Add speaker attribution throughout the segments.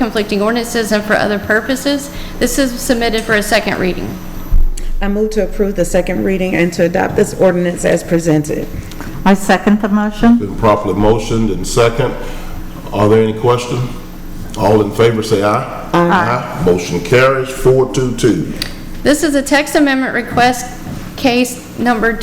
Speaker 1: conflicting ordinances and for other purposes. This is submitted for a second reading.
Speaker 2: I move to approve the second reading and to adopt this ordinance as presented.
Speaker 3: I second the motion.
Speaker 4: Been properly motioned and second. Are there any questions? All in favor, say aye. Aye. Motion carries four two two.
Speaker 1: This is a text amendment request case number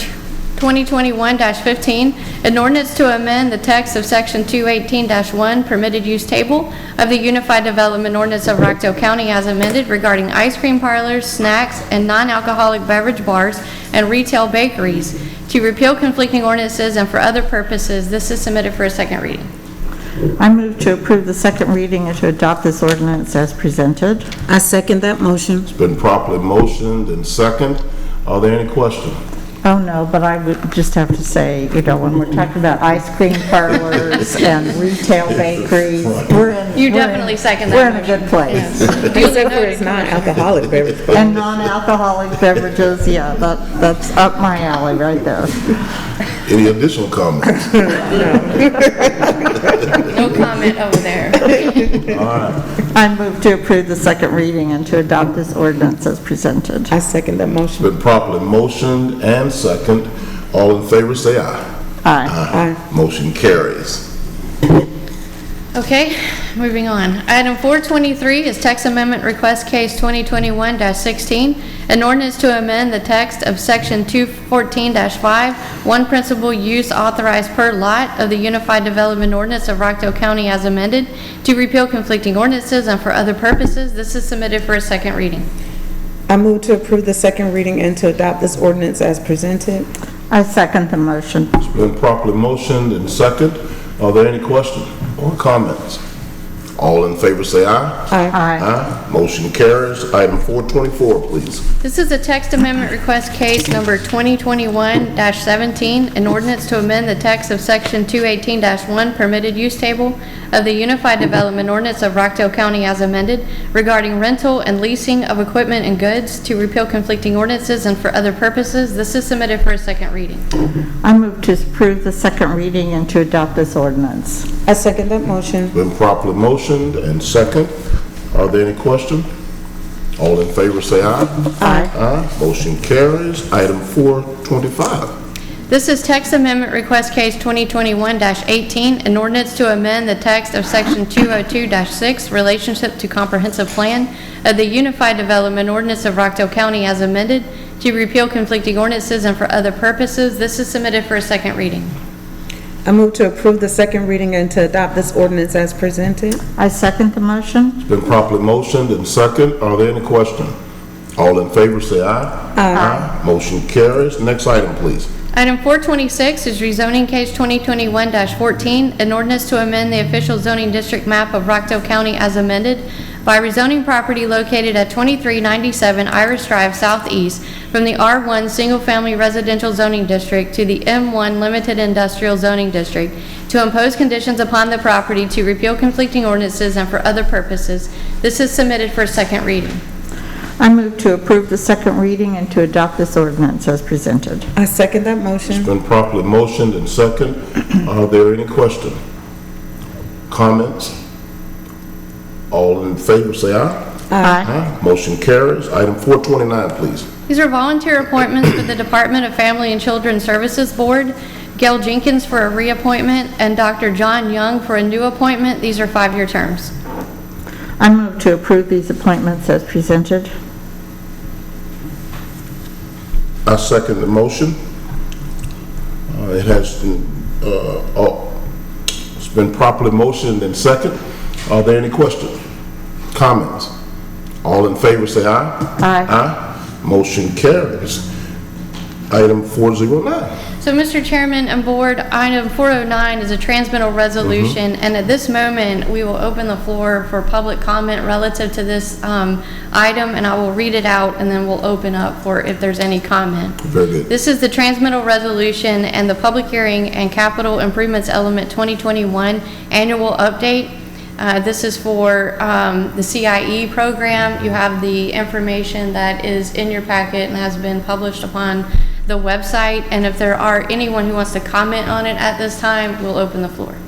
Speaker 1: 2021-15, an ordinance to amend the text of Section 218-1 permitted use table of the Unified Development Ordinance of Rockdale County as amended regarding ice cream parlors, snacks, and non-alcoholic beverage bars and retail bakeries, to repeal conflicting ordinances and for other purposes. This is submitted for a second reading.
Speaker 3: I move to approve the second reading and to adopt this ordinance as presented.
Speaker 2: I second that motion.
Speaker 4: It's been properly motioned and second. Are there any questions?
Speaker 3: Oh, no, but I would just have to say, you know, when we're talking about ice cream parlors and retail bakeries, we're in...
Speaker 1: You
Speaker 3: we're in-
Speaker 1: definitely second that
Speaker 3: We're in a good place.
Speaker 2: Except for it's non-alcoholic beverage.
Speaker 3: And non-alcoholic beverages, yeah, that, that's up my alley right there.
Speaker 4: Any additional comments?
Speaker 1: No comment over there.
Speaker 3: I move to approve the second reading and to adopt this ordinance as presented.
Speaker 2: I second that motion.
Speaker 4: Been properly motioned and second. All in favor, say aye.
Speaker 3: Aye.
Speaker 4: Motion carries.
Speaker 1: Okay, moving on. Item 423 is text amendment request case 2021-16, an ordinance to amend the text of section 214-5, one principal use authorized per lot of the Unified Development Ordinance of Rockdale County as amended, to repeal conflicting ordinances and for other purposes. This is submitted for a second reading.
Speaker 2: I move to approve the second reading and to adopt this ordinance as presented.
Speaker 3: I second the motion.
Speaker 4: It's been properly motioned and second. Are there any questions or comments? All in favor, say aye.
Speaker 3: Aye.
Speaker 4: Aye. Motion carries. Item 424, please.
Speaker 1: This is a text amendment request case number 2021-17, an ordinance to amend the text of section 218-1 permitted use table of the Unified Development Ordinance of Rockdale County as amended regarding rental and leasing of equipment and goods to repeal conflicting ordinances and for other purposes. This is submitted for a second reading.
Speaker 3: I move to approve the second reading and to adopt this ordinance.
Speaker 2: I second that motion.
Speaker 4: Been properly motioned and second. Are there any questions? All in favor, say aye.
Speaker 3: Aye.
Speaker 4: Aye. Motion carries. Item 425.
Speaker 1: This is text amendment request case 2021-18, an ordinance to amend the text of section 202-6, relationship to comprehensive plan of the Unified Development Ordinance of Rockdale County as amended, to repeal conflicting ordinances and for other purposes. This is submitted for a second reading.
Speaker 2: I move to approve the second reading and to adopt this ordinance as presented.
Speaker 3: I second the motion.
Speaker 4: It's been properly motioned and second. Are there any questions? All in favor, say aye. Aye. Motion carries. Next item, please.
Speaker 1: Item 426 is rezoning case 2021-14, an ordinance to amend the official zoning district map of Rockdale County as amended by rezoning property located at 2397 Iris Drive Southeast from the R1 Single Family Residential Zoning District to the M1 Limited Industrial Zoning District to impose conditions upon the property to repeal conflicting ordinances and for other purposes. This is submitted for second reading.
Speaker 3: I move to approve the second reading and to adopt this ordinance as presented.
Speaker 2: I second that motion.
Speaker 4: Been properly motioned and second. Are there any questions? Comments? All in favor, say aye.
Speaker 3: Aye.
Speaker 4: Aye. Motion carries. Item 429, please.
Speaker 1: These are volunteer appointments for the Department of Family and Children Services Board. Gail Jenkins for a reappointment and Dr. John Young for a new appointment. These are five-year terms.
Speaker 3: I move to approve these appointments as presented.
Speaker 4: I second the motion. Uh, It has, uh, oh, it's been properly motioned and second. Are there any questions? Comments? All in favor, say aye.
Speaker 3: Aye.
Speaker 4: Aye. Motion carries. Item 409.
Speaker 1: So, Mr. Chairman and Board, item 409 is a transmittal resolution,
Speaker 4: Mm-hmm.
Speaker 1: and at this moment, we will open the floor for public comment relative to this um, item, and I will read it out, and then we'll open up for if there's any comment.
Speaker 4: Very good.
Speaker 1: This is the transmittal resolution and the public hearing and capital improvements element 2021 annual update. Uh, This is for um, the CIE program. You have the information that is in your packet and has been published upon the website. And if there are anyone who wants to comment on it at this time, we'll open the floor.